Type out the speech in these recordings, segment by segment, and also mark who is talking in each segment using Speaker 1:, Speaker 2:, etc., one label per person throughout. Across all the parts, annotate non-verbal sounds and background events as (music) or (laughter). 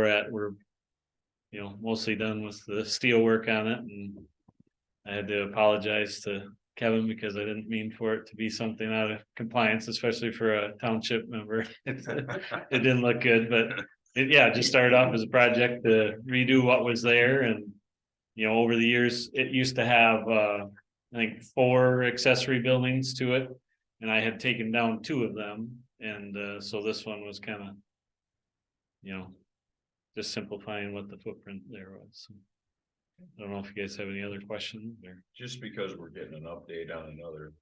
Speaker 1: we're at, we're. You know, mostly done with the steel work on it and. I had to apologize to Kevin because I didn't mean for it to be something out of compliance, especially for a township member. (laughs) It's- It didn't look good, but it, yeah, it just started off as a project to redo what was there and. You know, over the years, it used to have, uh, I think, four accessory buildings to it. And I had taken down two of them, and, uh, so this one was kind of you know, just simplifying what the footprint there was. I don't know if you guys have any other questions or.
Speaker 2: Just because we're getting an update on another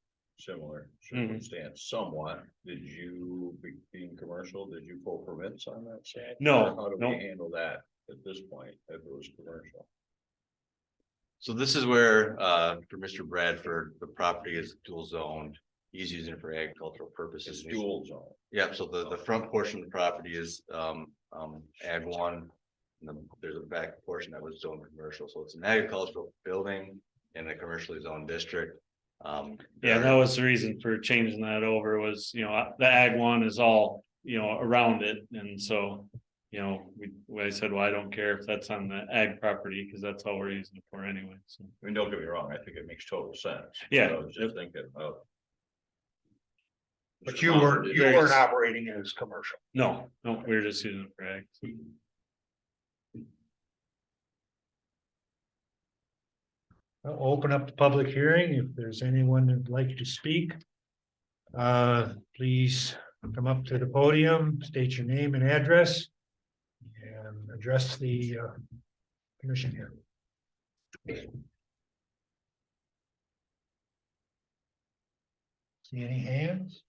Speaker 2: similar
Speaker 1: Mhm.
Speaker 2: circumstance somewhat, did you, be- being commercial, did you pull permits on that side?
Speaker 1: No,
Speaker 2: Or How do
Speaker 1: no.
Speaker 2: we handle that at this point, if it was commercial?
Speaker 3: So this is where, uh, for Mr. Bradford, the property is dual zoned. He's using it for agricultural
Speaker 2: It's
Speaker 3: purposes.
Speaker 2: dual zone.
Speaker 3: Yeah, so the, the front portion of the property is, um, um, ag one. And then there's a back portion that was zoned commercial, so it's an agricultural building in a commercially zoned district. Um.
Speaker 1: Yeah, that was the reason for changing that over was, you know, the ag one is all, you know, around it and so. You know, we, we- I said, well, I don't care if that's on the ag property because that's all we're using it for anyway, so.
Speaker 2: I mean, don't get me wrong, I think it makes total sense.
Speaker 1: Yeah.
Speaker 2: But I was just thinking about.
Speaker 4: But you weren't, you weren't
Speaker 1: There's-
Speaker 4: operating it as commercial.
Speaker 1: No, no, we we're just using it for ag.
Speaker 4: I'll Open up the public hearing. If there's anyone that'd like to speak. Uh, please come up to the podium, state your name and address. And address the uh, commission here. See any hands?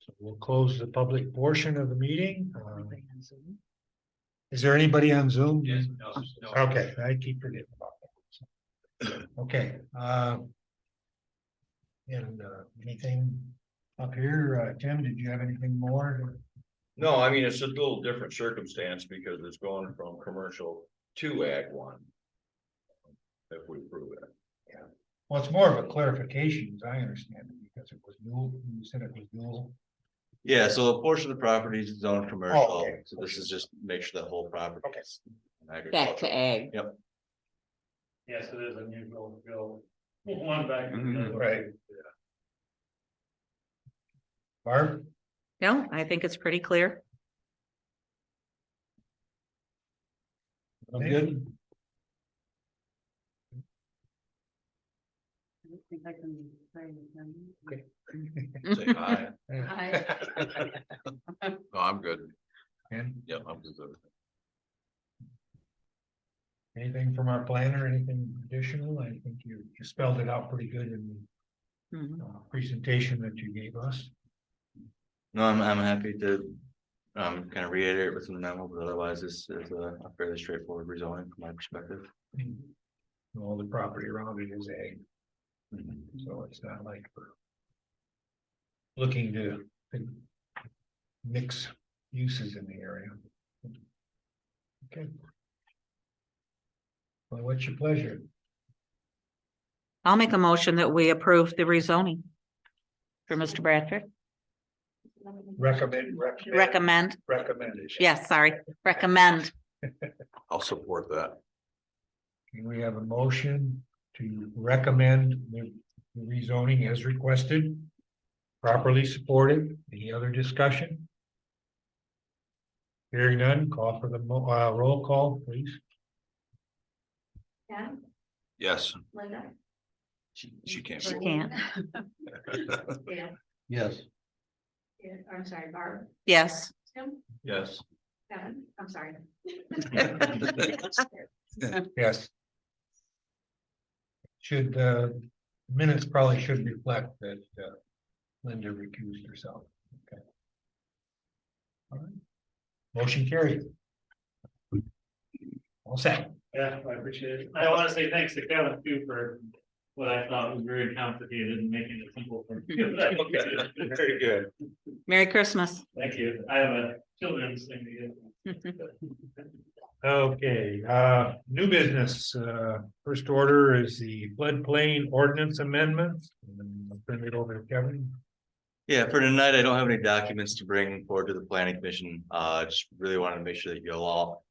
Speaker 4: So we'll close the public portion of the meeting. Um, Is there anybody on Zoom? Okay, I keep forgetting about that. Okay, uh. And uh, anything up here, uh, Tim, did you have anything more?
Speaker 2: No, I mean, it's a little different circumstance because it's going from commercial to ag one. If we prove it.
Speaker 4: Well, it's more of a clarification, as I understand it, because it was new, you said it was new.
Speaker 3: Yeah, so a portion of the property is zoned commercial,
Speaker 4: okay.
Speaker 3: so this is just make sure the whole property.
Speaker 4: Okay.
Speaker 3: is
Speaker 5: Back
Speaker 3: agricultural.
Speaker 5: to ag.
Speaker 1: Yes, it is unusual to go one back.
Speaker 3: Mhm.
Speaker 4: Mm-hmm, Right. Barb,
Speaker 5: No, I think it's pretty clear.
Speaker 4: I'm good.
Speaker 2: Say hi.
Speaker 5: Hi.
Speaker 2: No, I'm good.
Speaker 4: And
Speaker 2: Yeah, I'm good.
Speaker 4: anything from our planner, anything additional? I think you you spelled it out pretty good in
Speaker 5: Mhm.
Speaker 4: the uh, presentation that you gave us.
Speaker 3: No, I'm, I'm happy to, um, kind of reiterate what's in the memo, but otherwise this is a a fairly straightforward rezoning from my perspective.
Speaker 4: And All the property around it is ag. So it's not like we're looking to to mix uses in the area. Okay. Well, what's your pleasure?
Speaker 5: I'll make a motion that we approve the rezoning. For Mr. Bradford,
Speaker 4: Recommend, recommend,
Speaker 5: recommend,
Speaker 4: recommendation.
Speaker 5: yes, sorry, recommend.
Speaker 2: I'll support that.
Speaker 4: Can We have a motion to recommend the the rezoning as requested. Properly supported. Any other discussion? Hearing none, call for the mo- uh, roll call, please.
Speaker 6: Ken,
Speaker 2: Yes.
Speaker 6: Linda.
Speaker 2: She, she can't.
Speaker 5: She can't,
Speaker 6: Yeah,
Speaker 4: Yes.
Speaker 6: yeah, I'm sorry, Barb,
Speaker 5: yes.
Speaker 6: Tim,
Speaker 2: Yes.
Speaker 6: Kevin, I'm sorry.
Speaker 4: Yes. Should, uh, minutes probably should reflect that, uh, Linda recused herself. Okay. All right. Motion carried. All set.
Speaker 1: Yeah, I appreciate it. I want to say thanks to Kevin too for what I thought was very complicated and making it simple for (laughs) me.
Speaker 2: Very good.
Speaker 5: Merry Christmas.
Speaker 1: Thank you. I have a children's thing to get.
Speaker 4: Okay, uh, new business, uh, first order is the floodplain ordinance amendments. And then I'll Turn it over to Kevin.
Speaker 3: Yeah, for tonight, I don't have any documents to bring forward to the planning commission. Uh, just really wanted to make sure that you all